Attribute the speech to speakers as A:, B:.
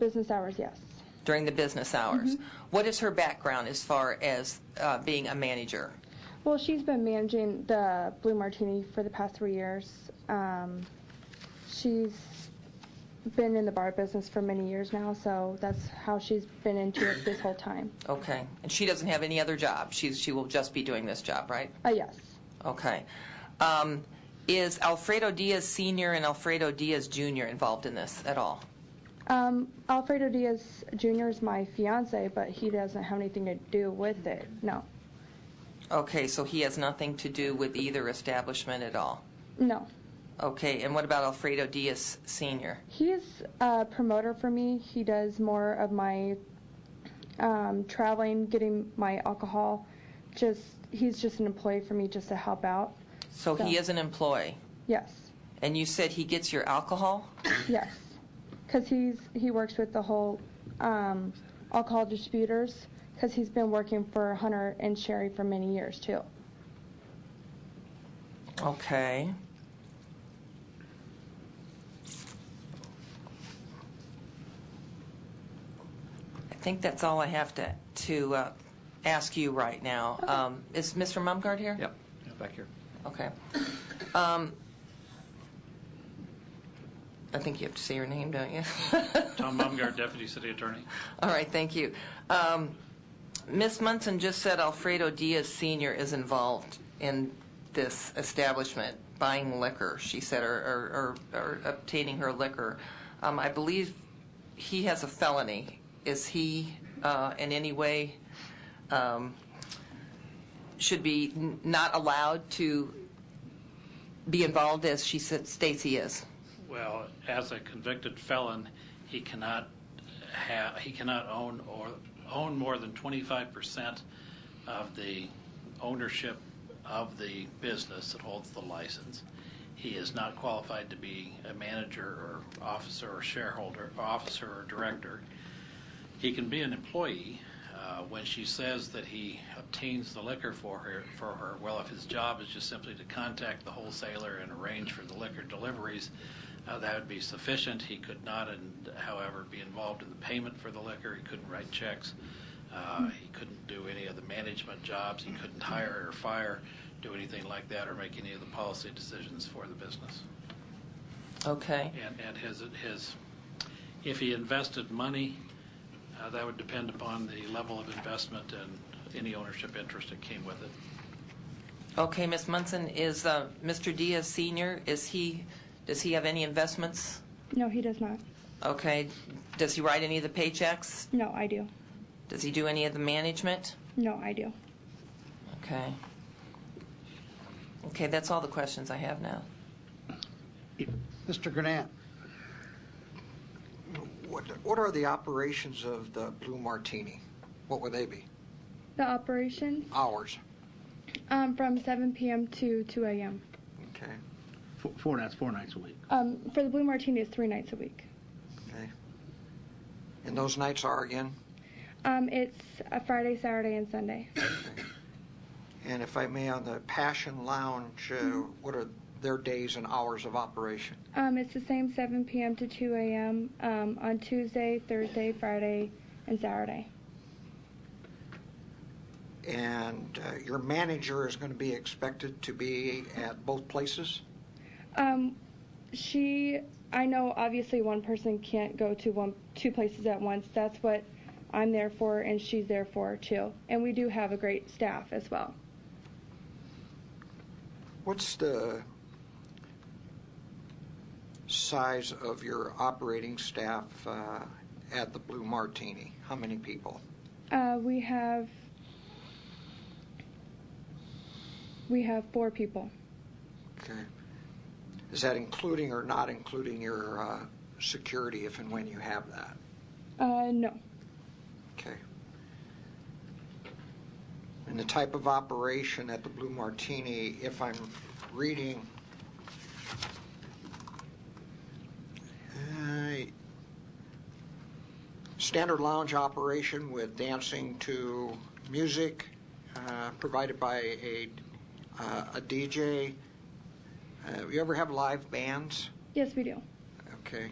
A: Business hours, yes.
B: during the business hours. What is her background as far as uh, being a manager?
A: Well, she's been managing the Blue Martini for the past three years. Um, she's been in the bar business for many years now, so that's how she's been into it this whole time.
B: Okay, and she doesn't have any other job. She's she will just be doing this job, right?
A: Uh, yes.
B: Okay. Um, is Alfredo Diaz Senior and Alfredo Diaz Junior involved in this at all?
A: Um, Alfredo Diaz Jr. is my fiance, but he doesn't have anything to do with it. No,
B: Okay, so he has nothing to do with either establishment at all.
A: no.
B: Okay, and what about Alfredo Diaz Senior?
A: He is a promoter for me. He does more of my um, traveling, getting my alcohol. Just he's just an employee for me, just to help out.
B: So he
A: So-
B: is an employee,
A: Yes,
B: and you said he gets your alcohol.
A: yes, because he's he works with the whole um, alcohol distributors. Because he's been working for Hunter and Sherry for many years too.
B: Okay. I think that's all I have to, to uh, ask you right now. Um, Is Mr. Mumgarde here?
C: Yep, back here.
B: Okay. Um, I think you have to say your name, don't you?
D: Tom Baumgart, Deputy City Attorney.
B: All right, thank you. Um, Ms. Munson just said Alfredo Diaz Sr. is involved in this establishment, buying liquor, she said, or, or, or- or obtaining her liquor. Um, I believe he has a felony. Is he uh, in any way, um, should be n- not allowed to be involved as she said, states he is?
D: Well, as a convicted felon, he cannot have, he cannot own or own more than 25% of the ownership of the business that holds the license. He is not qualified to be a manager or officer or shareholder, or officer or director. He can be an employee. Uh, when she says that he obtains the liquor for her, for her, well, if his job is just simply to contact the wholesaler and arrange for the liquor deliveries, uh, that would be sufficient. He could not, and however, be involved in the payment for the liquor. He couldn't write checks. Uh, he couldn't do any of the management jobs. He couldn't hire or fire, do anything like that, or make any of the policy decisions for the business.
B: Okay.
D: And, and his, his, if he invested money, uh, that would depend upon the level of investment and any ownership interest that came with it.
B: Okay, Ms. Munson, is uh, Mr. Diaz Senior, is he, does he have any investments?
A: No, he does not.
B: Okay, does he write any of the paychecks?
A: No, I do.
B: Does he do any of the management?
A: No, I do.
B: Okay. Okay, that's all the questions I have now.
E: Mr. Grenat, what, what are the operations of the Blue Martini? What would they be?
A: The operations
E: Hours?
A: um, from 7 p.m. to 2 a.m.
E: Okay,
F: Four, four nights, four nights a week.
A: Um, for the Blue Martini, it's three nights a week.
E: okay. And those nights are again?
A: Um, it's a Friday, Saturday, and Sunday.
E: And if I may, on the Passion Lounge, uh, what are their days and hours of operation?
A: Um, it's the same 7 p.m. to 2 a.m. Um, on Tuesday, Thursday, Friday, and Saturday.
E: And uh, your manager is going to be expected to be at both places?
A: Um, she, I know obviously one person can't go to one two places at once. That's what I'm there for, and she's there for too. And we do have a great staff as well.
E: What's the size of your operating staff uh, at the Blue Martini? How many people?
A: Uh, we have we have four people.
E: Okay. Is that including or not including your uh, security if and when you have that?
A: Uh, no.
E: Okay. And the type of operation at the Blue Martini, if I'm reading, uh, standard lounge operation with dancing to music uh, provided by a, uh, a DJ. Uh, you ever have live bands?
A: Yes, we do.
E: Okay.